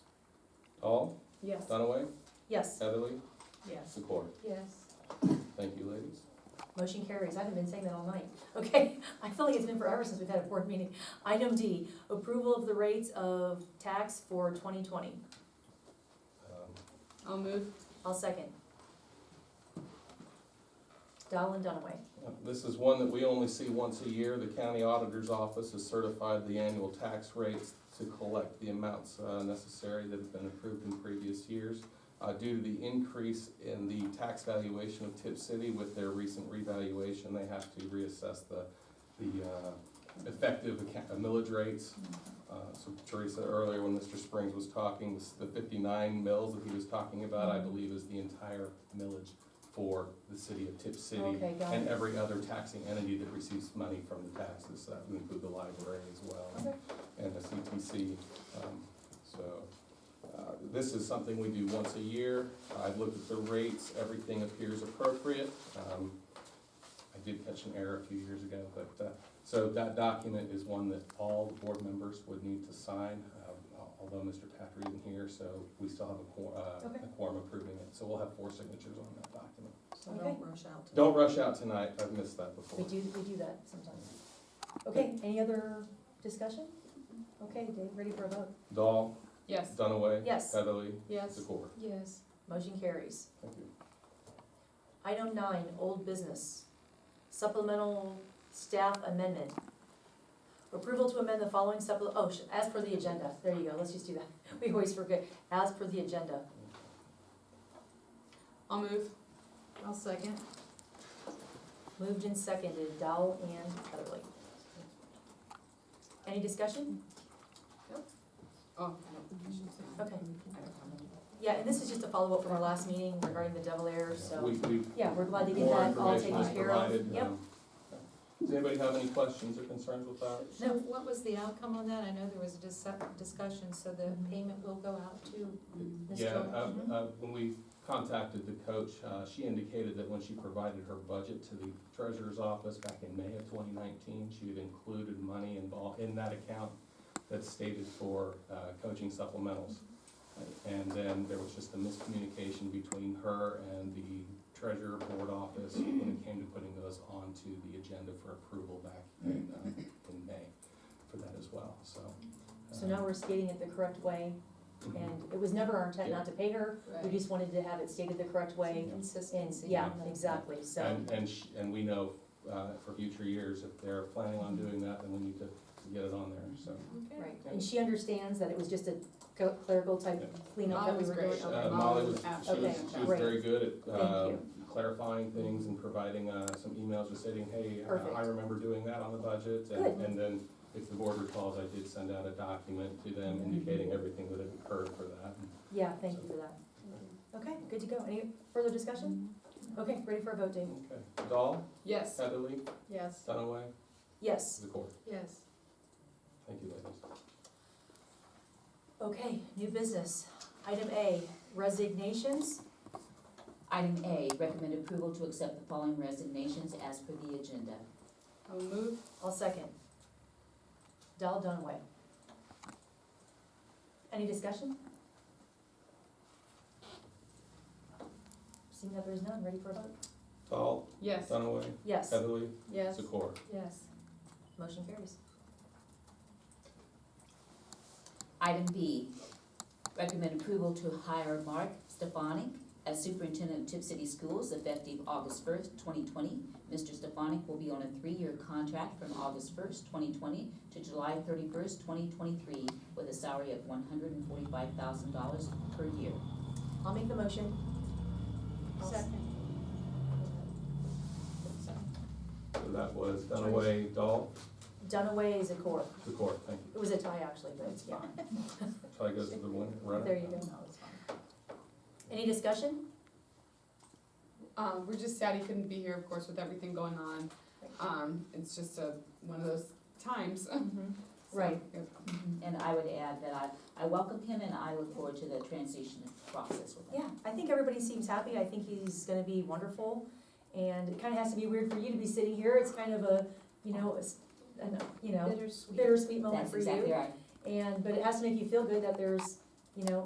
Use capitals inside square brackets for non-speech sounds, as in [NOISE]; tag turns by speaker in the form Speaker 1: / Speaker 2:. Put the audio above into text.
Speaker 1: Hall,
Speaker 2: Yes.
Speaker 1: Dunaway,
Speaker 3: Yes.
Speaker 1: Heatherly,
Speaker 2: Yes.
Speaker 1: Secor.
Speaker 3: Yes.
Speaker 1: Thank you, ladies.
Speaker 3: Motion carries. I haven't been saying that all night. [LAUGHS] Okay, I feel like it's been forever since we've had a board meeting. Item D, approval of the rates of tax for twenty twenty.
Speaker 1: Um,
Speaker 2: I'll move.
Speaker 3: I'll second. Dahl and Dunaway.
Speaker 1: This is one that we only see once a year. The county auditor's office has certified the annual tax rates to collect the amounts uh, necessary that have been approved in previous years. Uh, Due to the increase in the tax valuation of Tip City with their recent revaluation, they have to reassess the, the uh, effective account- millage rates. Uh, So Teresa, earlier when Mr. Springs was talking, this- the fifty-nine mills that he was talking about, I believe is the entire millage for the city of Tip City
Speaker 3: Okay, got
Speaker 1: and
Speaker 3: it.
Speaker 1: every other taxing entity that receives money from the taxes, that would include the library as well,
Speaker 3: Okay.
Speaker 1: and the CTC. um, So, uh, this is something we do once a year, I've looked at the rates, everything appears appropriate. Um, I did catch an error a few years ago, but, uh, so that document is one that all the board members would need to sign, uh, although Mr. Patrick isn't here, so we still have a quor- uh,
Speaker 3: Okay.
Speaker 1: a quorum approving it, so we'll have four signatures on that document.
Speaker 2: So don't rush out. to-
Speaker 1: Don't rush out tonight, I've missed that
Speaker 3: We
Speaker 1: before.
Speaker 3: do, we do that sometimes. Okay, any other discussion? Okay, Dave, ready for a vote?
Speaker 1: Dahl,
Speaker 2: Yes.
Speaker 1: Dunaway.
Speaker 3: Yes.
Speaker 1: Heatherly,
Speaker 2: Yes.
Speaker 1: Secor.
Speaker 2: Yes.
Speaker 3: Motion carries.
Speaker 1: Thank you.
Speaker 3: Item nine, old business. Supplemental staff amendment. Approval to amend the following supple, oh, sh- as per the agenda. There you go, let's just do that. [LAUGHS] We always forget, as per the agenda.
Speaker 2: I'll move. I'll second.
Speaker 3: Moved and seconded, Dowell and Heatherly. Any discussion?
Speaker 2: Oh. I don't- I should say- I
Speaker 3: Okay.
Speaker 2: have a comment.
Speaker 3: Yeah, and this is just a follow-up from our last meeting regarding the Devil Air, so,
Speaker 1: We, we.
Speaker 3: yeah, we're glad to get
Speaker 1: more
Speaker 3: that all
Speaker 1: information
Speaker 3: taken
Speaker 1: was
Speaker 3: care of.
Speaker 1: provided,
Speaker 3: Yep,
Speaker 1: um, Does anybody have any questions or concerns with that?
Speaker 4: So what was the outcome on that? I know there was a dis- discussion, so the
Speaker 3: Mm-hmm.
Speaker 4: payment will go out to,
Speaker 3: Ms.
Speaker 1: Yeah,
Speaker 3: Jones?
Speaker 1: uh, uh, when we contacted the coach, uh, she indicated that when she provided her budget to the treasurer's office back in May of twenty nineteen, she had included money involved in that account that's stated for, uh, coaching supplementals. And then there was just a miscommunication between her and the treasurer board office when it came to putting those onto the agenda for approval back in, uh, in May for that as well, so. uh,
Speaker 3: so now we're skating it the correct way,
Speaker 1: Mm-hmm.
Speaker 3: and it was never our intent not to pay her, we
Speaker 2: Right.
Speaker 3: just wanted to have it stated the correct way. And,
Speaker 4: Consistency.
Speaker 3: yeah, exactly, so,
Speaker 1: And, uh, and, sh- and we know, uh, for future years, if they're planning on doing that, then we need to get it on there, so.
Speaker 3: right, and she understands that it was just a cl- clerical type cleanup
Speaker 2: Molly
Speaker 3: that we
Speaker 2: was
Speaker 3: were
Speaker 2: great.
Speaker 3: doing.
Speaker 1: Uh,
Speaker 3: Okay.
Speaker 1: Molly was, she
Speaker 2: absolutely
Speaker 1: was, she was very good at, uh,
Speaker 3: Thank
Speaker 1: clarifying things and providing, uh, some emails just stating, hey, uh,
Speaker 3: Perfect.
Speaker 1: I remember doing that on the budget.
Speaker 3: Good.
Speaker 1: And, and then, if the board recalls, I did send out a document to them indicating everything that had occurred for that.
Speaker 3: Yeah, thank you for that. Okay, good to go. Any further discussion? Okay, ready for a vote, Dave?
Speaker 1: Okay, Dahl,
Speaker 2: Yes.
Speaker 1: Heatherly,
Speaker 2: Yes.
Speaker 1: Dunaway,
Speaker 3: Yes.
Speaker 1: Zakor,
Speaker 2: Yes.
Speaker 1: thank you ladies.
Speaker 3: Okay, new business. Item A, resignations.
Speaker 5: Item A, recommend approval to accept the following resignations as per the agenda.
Speaker 2: I'll move.
Speaker 3: I'll second. Dahl Dunaway. Any discussion? Seeing that there's none, ready for a vote?
Speaker 1: Dahl,
Speaker 2: Yes.
Speaker 1: Dunaway,
Speaker 3: Yes.
Speaker 1: Heatherly,
Speaker 2: Yes.
Speaker 1: Zakor.
Speaker 2: Yes.
Speaker 3: Motion carries.
Speaker 5: Item B, recommend approval to hire Mark Stefanik as superintendent of Tip City Schools effective August first, twenty twenty. Mr. Stefanik will be on a three-year contract from August first, twenty twenty to July thirty-first, twenty twenty-three with a salary of one hundred and forty-five thousand dollars per year.
Speaker 3: I'll make the motion.
Speaker 2: Second.
Speaker 1: So that was Dunaway, Dahl,
Speaker 3: Dunaway is a core.
Speaker 1: Zakor, thank you.
Speaker 3: It was a tie, actually, but it's, yeah.
Speaker 1: So I goes to the winner, runner.
Speaker 3: There you go. Any discussion?
Speaker 2: Um, we're just sad he couldn't be here, of course, with everything going on. Um, it's just a, one of those times. So,
Speaker 3: Right.
Speaker 2: yeah.
Speaker 3: Mm-hmm.
Speaker 5: And I would add that I, I welcome him and I look forward to the transition process with him.
Speaker 3: Yeah, I think everybody seems happy. I think he's gonna be wonderful. And it kinda has to be weird for you to be sitting here. It's kind of a, you know, it's, an- you know,
Speaker 4: Bittersweet.
Speaker 3: bittersweet moment
Speaker 5: That's
Speaker 3: for
Speaker 5: exactly
Speaker 3: you.
Speaker 5: right.
Speaker 3: And, but it has to make you feel good that there's, you know,